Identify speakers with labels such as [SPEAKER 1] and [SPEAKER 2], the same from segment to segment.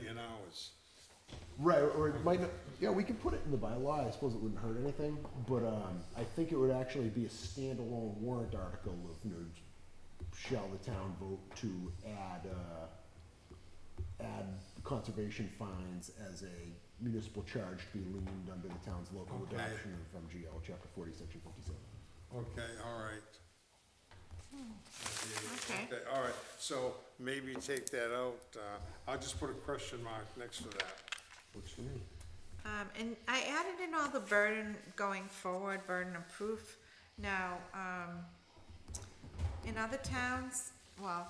[SPEAKER 1] ordinance.
[SPEAKER 2] Right, or it might not, yeah, we could put it in the bylaw, I suppose it wouldn't hurt anything, but, um, I think it would actually be a standalone warrant article of, you know, shall the town vote to add, uh, add conservation fines as a municipal charge to be leaned under the town's local
[SPEAKER 1] Okay.
[SPEAKER 2] adoption of MGL, chapter forty, section fifty-seven.
[SPEAKER 1] Okay, all right.
[SPEAKER 3] Okay.
[SPEAKER 1] All right, so maybe take that out. Uh, I'll just put a question mark next to that.
[SPEAKER 2] Works for me.
[SPEAKER 3] Um, and I added in all the burden going forward, burden of proof. Now, um, in other towns, well,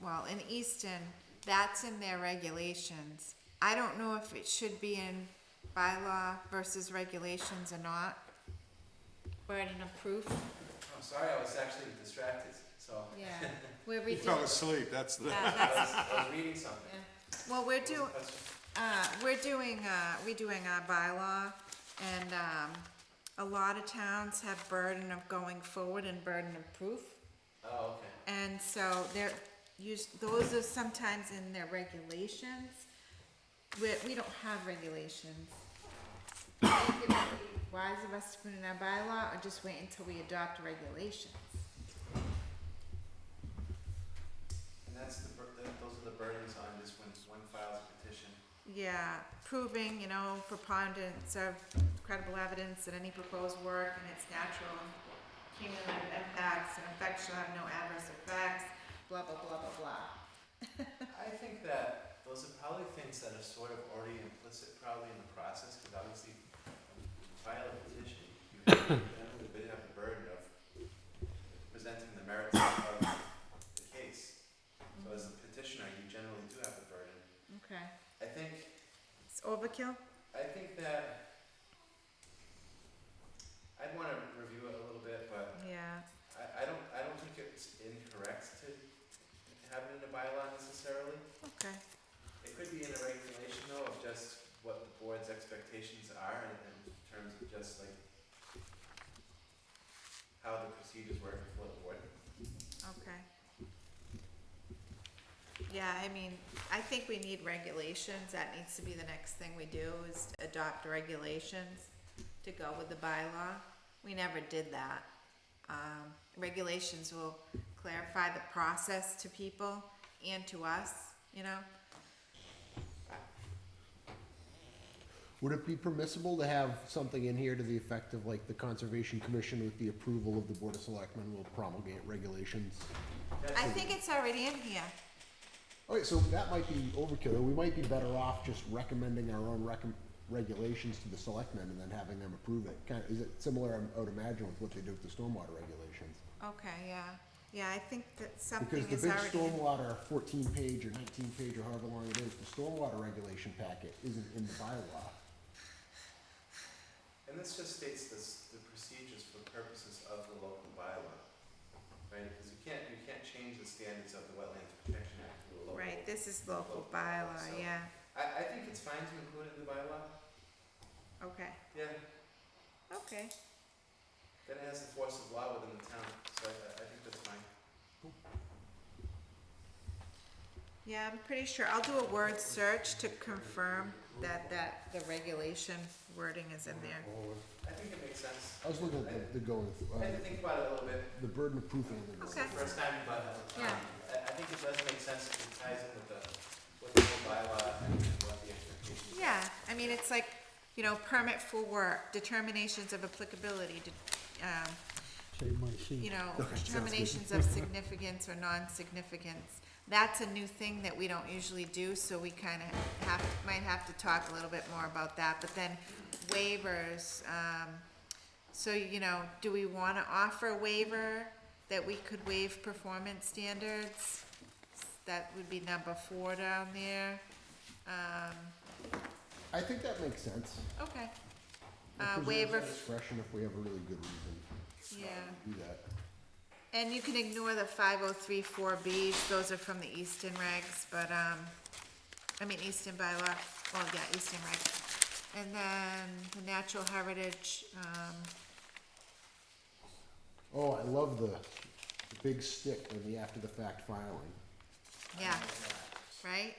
[SPEAKER 3] well, in Easton, that's in their regulations. I don't know if it should be in bylaw versus regulations or not. Burden of proof,
[SPEAKER 4] I'm sorry, I was actually distracted, so
[SPEAKER 3] yeah. We're
[SPEAKER 1] You fell
[SPEAKER 3] redoing,
[SPEAKER 1] asleep, that's the,
[SPEAKER 3] uh,
[SPEAKER 4] I
[SPEAKER 3] that's,
[SPEAKER 4] was, I was reading something.
[SPEAKER 3] yeah. Well, we're
[SPEAKER 4] What was the
[SPEAKER 3] doing,
[SPEAKER 4] question?
[SPEAKER 3] Uh, we're doing, uh, we're doing our bylaw, and, um, a lot of towns have burden of going forward and burden of proof.
[SPEAKER 4] Oh, okay.
[SPEAKER 3] And so they're, us those are sometimes in their regulations. We, we don't have regulations. I think it would be Wise of us to put in our bylaw, or just wait until we adopt regulations?
[SPEAKER 4] And that's the, bur- th- those are the burdens on this when one files a petition.
[SPEAKER 3] Yeah, proving, you know, preponderance of credible evidence that any proposed work and its natural and cumulative impacts and effects shall have no adverse effects, blah, blah, blah, blah, blah.
[SPEAKER 4] I think that those are probably things that are sort of already implicit probably in the process, because obviously when you file a petition, you have, you have a bit of a burden of presenting the merits of the case. So as a petitioner, you generally do have the burden.
[SPEAKER 3] Okay.
[SPEAKER 4] I think
[SPEAKER 3] It's overkill?
[SPEAKER 4] I think that I'd want to review it a little bit, but
[SPEAKER 3] Yeah.
[SPEAKER 4] I, I don't I don't think it's incorrect to have it in a bylaw necessarily.
[SPEAKER 3] Okay.
[SPEAKER 4] It could be in a regulation though of just what the board's expectations are in, in terms of just like how the procedures work for the board.
[SPEAKER 3] Okay. Yeah, I mean, I think we need regulations. That needs to be the next thing we do is adopt regulations to go with the bylaw. We never did that. Um, regulations will clarify the process to people and to us, you know?
[SPEAKER 2] Would it be permissible to have something in here to the effect of like the Conservation Commission with the approval of the Board of Selectmen will promulgate regulations?
[SPEAKER 3] I think it's already in here.
[SPEAKER 2] Alright, so that might be overkill, we might be better off just recommending our own recom- regulations to the selectmen and then having them approve it. Kind of, is it similar, I would imagine, with what they do with the stormwater regulations?
[SPEAKER 3] Okay, yeah. Yeah, I think that something
[SPEAKER 2] Because the
[SPEAKER 3] is
[SPEAKER 2] big
[SPEAKER 3] already in.
[SPEAKER 2] stormwater fourteen page or nineteen page or however long it is, the stormwater regulation packet isn't in the bylaw.
[SPEAKER 4] And this just states this, the procedures for purposes of the local bylaw, right? Because you can't, you can't change the standards of the Wetlands Protection Act to a local.
[SPEAKER 3] Right, this is local bylaw,
[SPEAKER 4] So-
[SPEAKER 3] yeah.
[SPEAKER 4] I, I think it's fine to include in the bylaw,
[SPEAKER 3] Okay,
[SPEAKER 4] yeah,
[SPEAKER 3] okay.
[SPEAKER 4] then it has the force of law within the town, so I, I think that's fine.
[SPEAKER 3] Yeah, I'm pretty sure, I'll do a word search to confirm that, that the regulation wording is in there.
[SPEAKER 4] I think it makes sense.
[SPEAKER 2] I was looking at the, the going,
[SPEAKER 4] I
[SPEAKER 2] uh,
[SPEAKER 4] had to think about it a little bit,
[SPEAKER 2] the burden of proof and the.
[SPEAKER 3] Okay.
[SPEAKER 4] first time, but, um,
[SPEAKER 3] Yeah.
[SPEAKER 4] I, I think it does make sense if it ties in with the, with the whole bylaw and what the expectations. are.
[SPEAKER 3] Yeah, I mean, it's like, you know, permit for work, determinations of applicability, de- um,
[SPEAKER 5] Save my seat.
[SPEAKER 3] you know,
[SPEAKER 2] Okay, sounds good.
[SPEAKER 3] determinations of significance or non-significance. That's a new thing that we don't usually do, so we kinda have, might have to talk a little bit more about that, but then waivers, um, so, you know, do we wanna offer a waiver that we could waive performance standards? That would be number four down there, um,
[SPEAKER 2] I think that makes sense.
[SPEAKER 3] okay,
[SPEAKER 2] It
[SPEAKER 3] Uh,
[SPEAKER 2] preserves
[SPEAKER 3] waiver
[SPEAKER 2] our
[SPEAKER 3] f-
[SPEAKER 2] Discretion if we have a really good reason
[SPEAKER 3] yeah.
[SPEAKER 2] to do that.
[SPEAKER 3] And you can ignore the five oh three four Bs, those are from the Easton regs, but, um, I mean, Easton bylaw, well, yeah, Easton regs. And then the natural heritage, um,
[SPEAKER 2] Oh, I love the, the big stick on the after the fact filing.
[SPEAKER 3] yeah, right?